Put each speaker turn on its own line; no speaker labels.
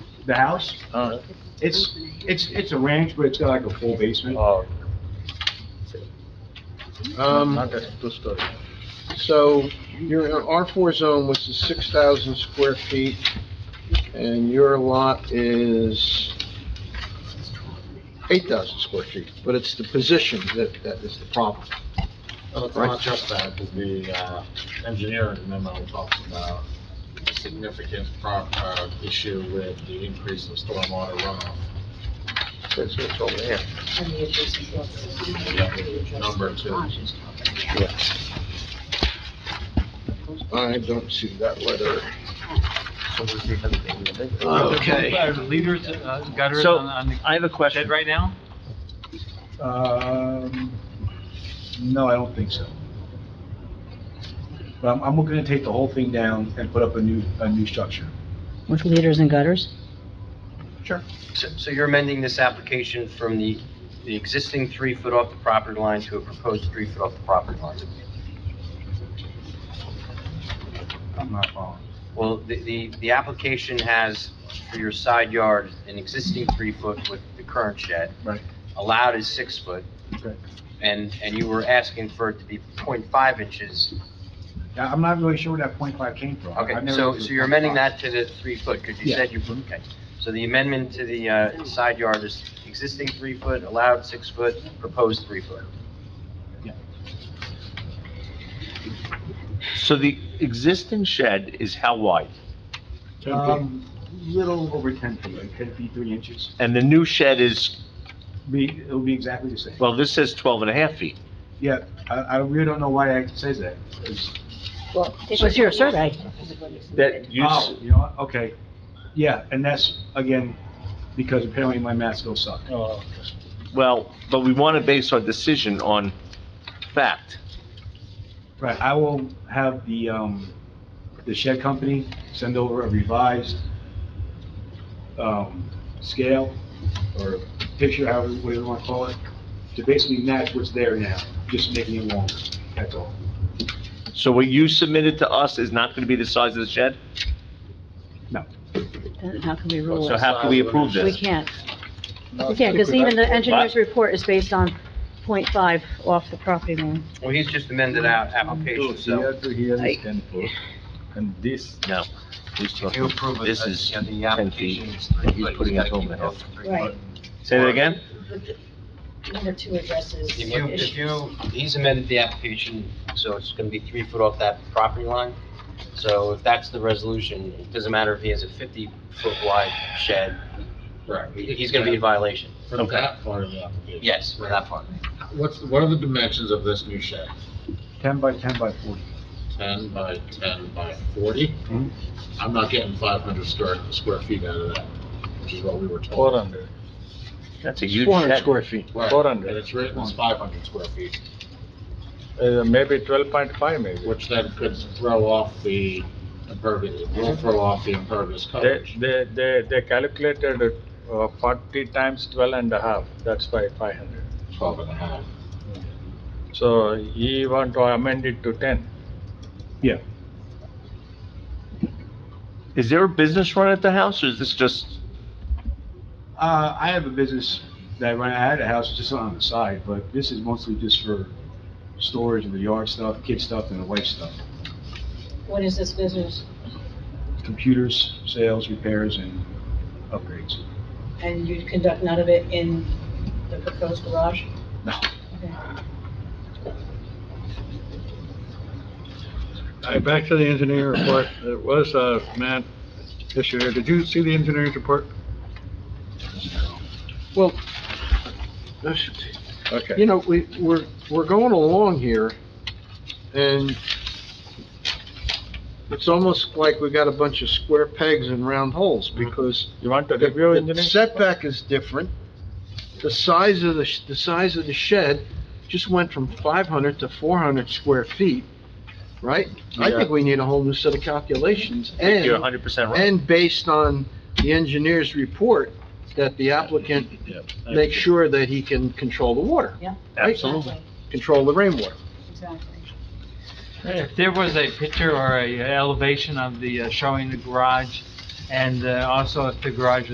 the house.
Uh-huh.
Uh,
It's, it's, it's a ranch, but it's got like a full basement.
oh,
Um,
not that two story.
so your R four zone was the six thousand square feet, and your lot is eight thousand square feet, but it's the position that, that is the problem.
Well, it's not just that, because the uh, engineering memo talks about a significant pro- uh, issue with the increase of stormwater runoff.
That's what's over here.
Number two.
I don't see that letter.
So we see everything in the business.
Okay.
Are the leaders, uh, gutters
So-
on, on the
I have a question.
shed right now?
Um, no, I don't think so. But I'm, I'm gonna take the whole thing down and put up a new, a new structure.
With leaders and gutters?
So so you're amending this application from the, the existing three foot off the property line to a proposed three foot off the property line?
I'm not following.
Well, the, the, the application has for your side yard an existing three foot with the current shed.
Right.
Allowed is six foot.
Okay.
And, and you were asking for it to be 0.5 inches.
Yeah, I'm not really sure where that point five came from.
Okay,
I've never
so,
looked at
so
the
you're
point
amending
five.
that to the three foot, because you
Yeah.
said you, okay. So the amendment to the, uh, side yard is existing three foot, allowed six foot, proposed three foot.
So the existing shed is how wide?
Um, little over ten feet, like ten feet, three inches.
And the new shed is,
Be, it'll be exactly the same.
well, this says 12 and a half feet.
Yeah, I, I really don't know why it says that. It's-
It was your survey.
That you, s-
Oh, you know, what? okay. Yeah, and that's, again, because apparently my math go suck.
well, but we want to base our decision on fact.
Right, I will have the, um, the shed company send over a revised, um, scale or picture, however, whatever you wanna call it, to basically match what's there now, just making it longer, that's all.
So what you submitted to us is not going to be the size of the shed?
Then how can we rule
So
it?
how can we approve
We
this?
can't. We can't, because even the engineer's report is based on .5 off the property line.
Well, he's just amended our application, so
No. He's
if you
talking-
approve of
This
this,
is
you know, the
10 feet.
application is three
He's
foot,
putting
you
it
gotta
home
keep
and
it
off.
to three
Right.
foot.
Say that again?
Number two addresses.
If you,
issues.
if you, he's amended the application, so it's gonna be three foot off that property line. So if that's the resolution, it doesn't matter if he has a fifty foot wide shed,
Right.
he- he's gonna be in violation.
For
Okay.
that part of the application.
Yes, for that part.
What's, what are the dimensions of this new shed?
Ten by ten by forty.
Ten by ten by forty?
Mm-hmm.
Mhm.
I'm not getting five hundred square, square feet out of that, which is what we were told.
under.
That's a huge
Four hundred
shed.
square feet.
Right,
Four hundred.
And it's written as five hundred square feet,
Uh, maybe twelve point five maybe.
which then could throw off the impervious, will throw off the impervious
They,
coverage.
they, they, they calculated it, uh, forty times twelve and a half, that's why five hundred.
Twelve and a half.
So he want to amend it to ten.
Is there a business run at the house, or is this just,
Uh, I have a business that I run, I had a house just on the side, but this is mostly just for storage of the yard stuff, kid stuff, and the wife stuff.
What is this business?
Computers, sales, repairs, and upgrades.
And you conduct none of it in the proposed garage?
No.
Okay.
All right, back to the engineering report. It was, uh, Matt issue here. Did you see the engineer's report?
Well,
Okay.
you know, we, we're, we're going along here, and it's almost like we got a bunch of square pegs and round holes, because
You want to
the-
review
the
engineer?
setback is different. The size of the, sh- the size of the shed just went from five hundred to four hundred square feet, right? I
Yeah.
think we need a whole new set of calculations, and.
you're 100% right?
And based on the engineer's report, that the applicant makes sure that he can control the water,
Absolutely.
control the rainwater.
Exactly.
If there was a picture or a elevation of the, uh, showing the garage, and uh, also if the garage